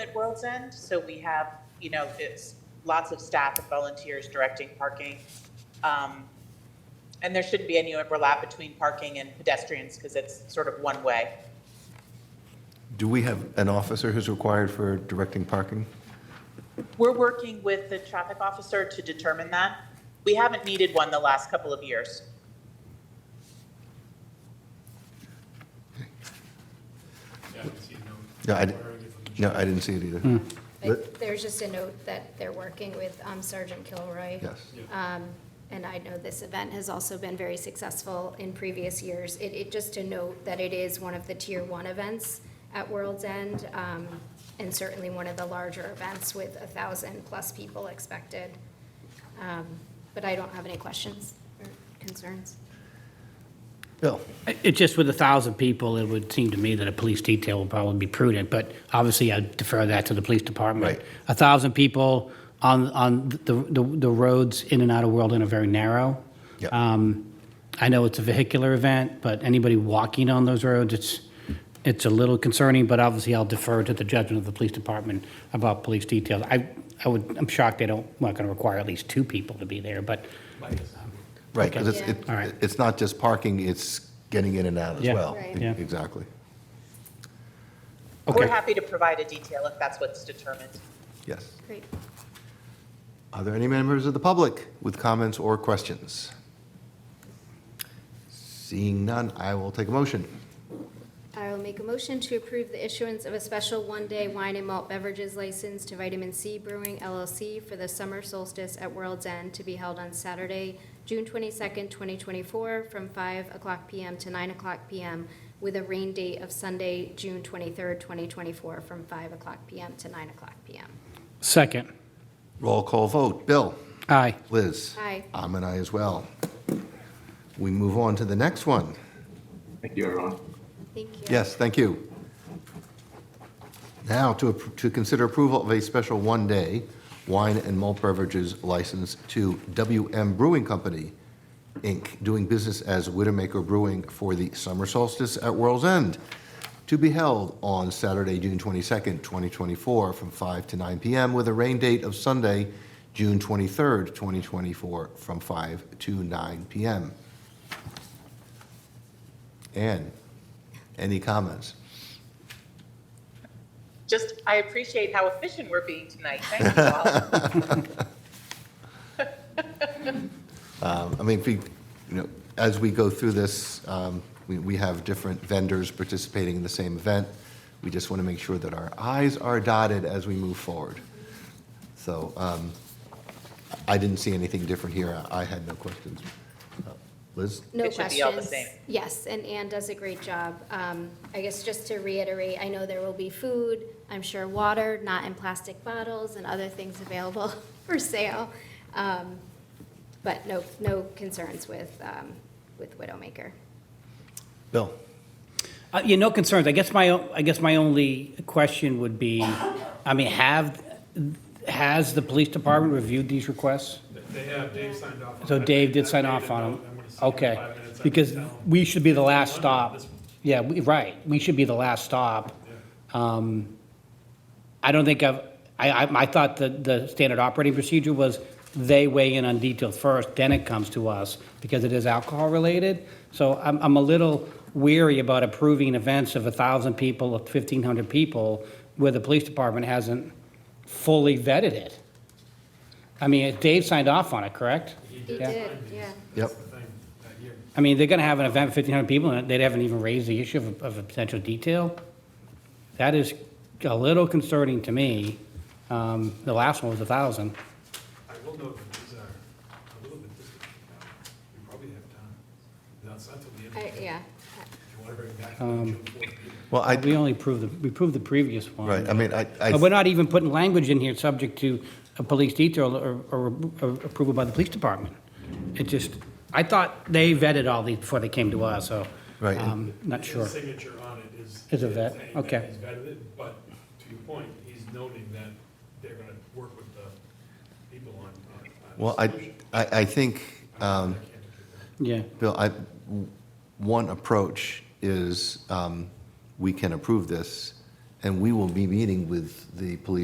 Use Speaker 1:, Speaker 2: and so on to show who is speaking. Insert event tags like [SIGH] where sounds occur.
Speaker 1: at World's End, so we have, you know, it's lots of staff and volunteers directing parking. Um, And there shouldn't be any overlap between parking and pedestrians because it's sort of one way.
Speaker 2: Do we have an officer who's required for directing parking?
Speaker 1: We're working with the traffic officer to determine that. We haven't needed one the last couple of years.
Speaker 3: Yeah, I can see
Speaker 2: No,
Speaker 3: no.
Speaker 2: I di-
Speaker 3: ordering it from the
Speaker 2: No,
Speaker 3: shop.
Speaker 2: I didn't see it
Speaker 4: Hmm.
Speaker 2: either. But-
Speaker 5: But there's just a note that they're working with um, Sergeant Kilroy.
Speaker 2: Yes.
Speaker 5: Um, And I know this event has also been very successful in previous years. It, it, just to note that it is one of the tier one events at World's End, um, and certainly one of the larger events with a thousand plus people expected. Um, But I don't have any questions or concerns.
Speaker 2: Bill,
Speaker 4: It just with a thousand people, it would seem to me that a police detail would probably be prudent, but obviously I defer that to the police department.
Speaker 2: Right.
Speaker 4: A thousand people on, on the, the, the roads in and out of Worldin are very narrow.
Speaker 2: Yeah.
Speaker 4: Um, I know it's a vehicular event, but anybody walking on those roads, it's, it's a little concerning, but obviously I'll defer to the judgment of the police department about police details. I, I would, I'm shocked they don't, not gonna require at least two people to be there, but
Speaker 2: right, because it's,
Speaker 5: Okay.
Speaker 2: it-
Speaker 4: All right.
Speaker 2: it's not just parking, it's getting in and out as
Speaker 4: Yeah.
Speaker 2: well.
Speaker 5: Right.
Speaker 2: E-
Speaker 4: Yeah.
Speaker 2: Exactly.
Speaker 1: We're
Speaker 4: Okay.
Speaker 1: happy to provide a detail if that's what's determined.
Speaker 2: Yes.
Speaker 5: Great.
Speaker 2: Are there any members of the public with comments or questions? Seeing none, I will take a motion.
Speaker 5: I will make a motion to approve the issuance of a special one-day wine and malt beverages license to Vitamin C Brewing LLC for the summer solstice at World's End to be held on Saturday, June twenty-second, twenty twenty-four, from five o'clock PM to nine o'clock PM, with a rain date of Sunday, June twenty-third, twenty twenty-four, from five o'clock PM to nine o'clock PM.
Speaker 4: second,
Speaker 2: Roll call vote. Bill?
Speaker 4: aye.
Speaker 2: Liz?
Speaker 5: Aye.
Speaker 2: I'm an aye as well. We move on to the next one.
Speaker 6: Thank you, everyone.
Speaker 5: Thank you.
Speaker 2: Yes, thank you. Now, to, appro- to consider approval of a special one-day wine and malt beverages license to WM Brewing Company, Inc., doing business as Widowmaker Brewing for the summer solstice at World's End, to be held on Saturday, June 22nd, 2024, from 5 to 9 p.m., with a rain date of Sunday, June 23rd, 2024, from 5 to 9 p.m. Ann, any comments?
Speaker 1: Just, I appreciate how efficient we're being tonight. Thank you all.
Speaker 2: Um, I mean, if we, you know, as we go through this, um, we we have different vendors participating in the same event. We just want to make sure that our i's are dotted as we move forward. So um, I didn't see anything different here. I- I had no questions. Uh, Liz?
Speaker 5: No
Speaker 1: It should
Speaker 5: questions.
Speaker 1: be all the same.
Speaker 5: Yes, and Anne does a great job. Um, I guess just to reiterate, I know there will be food, I'm sure water, not in plastic bottles, and other things available [LAUGHS] for sale. Um, But no, no concerns with, um, with Widowmaker.
Speaker 2: Bill?
Speaker 4: Uh, Yeah, no concerns. I guess my, o- I guess my only question would be, I mean, have, has the police department reviewed these requests?
Speaker 3: They have, Dave signed off on it.
Speaker 4: So Dave
Speaker 3: I
Speaker 4: did sign
Speaker 3: made a
Speaker 4: off on
Speaker 3: note, I'm
Speaker 4: them?
Speaker 3: gonna see it in
Speaker 4: Okay,
Speaker 3: five minutes. I
Speaker 4: because
Speaker 3: can tell.
Speaker 4: we should be the last
Speaker 3: One,
Speaker 4: stop.
Speaker 3: this one.
Speaker 4: Yeah, we- right, we should be the last stop. Um, I don't think I've, I, I I thought that the standard operating procedure was they weigh in on details first, then it comes to us, because it is alcohol-related. So I'm, I'm a little weary about approving events of 1,000 people, of 1,500 people, where the police department hasn't fully vetted it. I mean, Dave signed off on it, correct?
Speaker 5: He
Speaker 4: Yeah.
Speaker 5: did, yeah.
Speaker 2: Yep.
Speaker 3: That's the thing, that year.
Speaker 4: I mean, they're going to have an event, 1,500 people, and they haven't even raised the issue of, of a potential detail. That is a little concerning to me. Um, The last one was 1,000.
Speaker 3: I will note that these are a little bit distant now. We probably have time. No, it's not till the end. of
Speaker 5: I-
Speaker 3: the year.
Speaker 5: Yeah,
Speaker 3: If you want to bring it back to the June fourth meeting.
Speaker 2: Well, I,
Speaker 4: We only approved, the- we approved the previous one.
Speaker 2: right, I mean, I,
Speaker 4: But we're
Speaker 2: I-
Speaker 4: not even putting language in here subject to a police detail or, or approval by the police department. It just, I thought they vetted all these before they came to us, so.
Speaker 2: Right.
Speaker 4: um, Not
Speaker 3: His
Speaker 4: sure.
Speaker 3: signature on it is.
Speaker 4: Is a vet,
Speaker 3: saying that
Speaker 4: okay.
Speaker 3: He's vetted it, but to your point, he's noting that they're going to work with the people on. on- on
Speaker 2: well, I,
Speaker 3: solution.
Speaker 2: I I think, um,
Speaker 3: I can't do that.
Speaker 4: Yeah.
Speaker 2: Bill, I, one approach is, um, we can approve this and we will be meeting with the police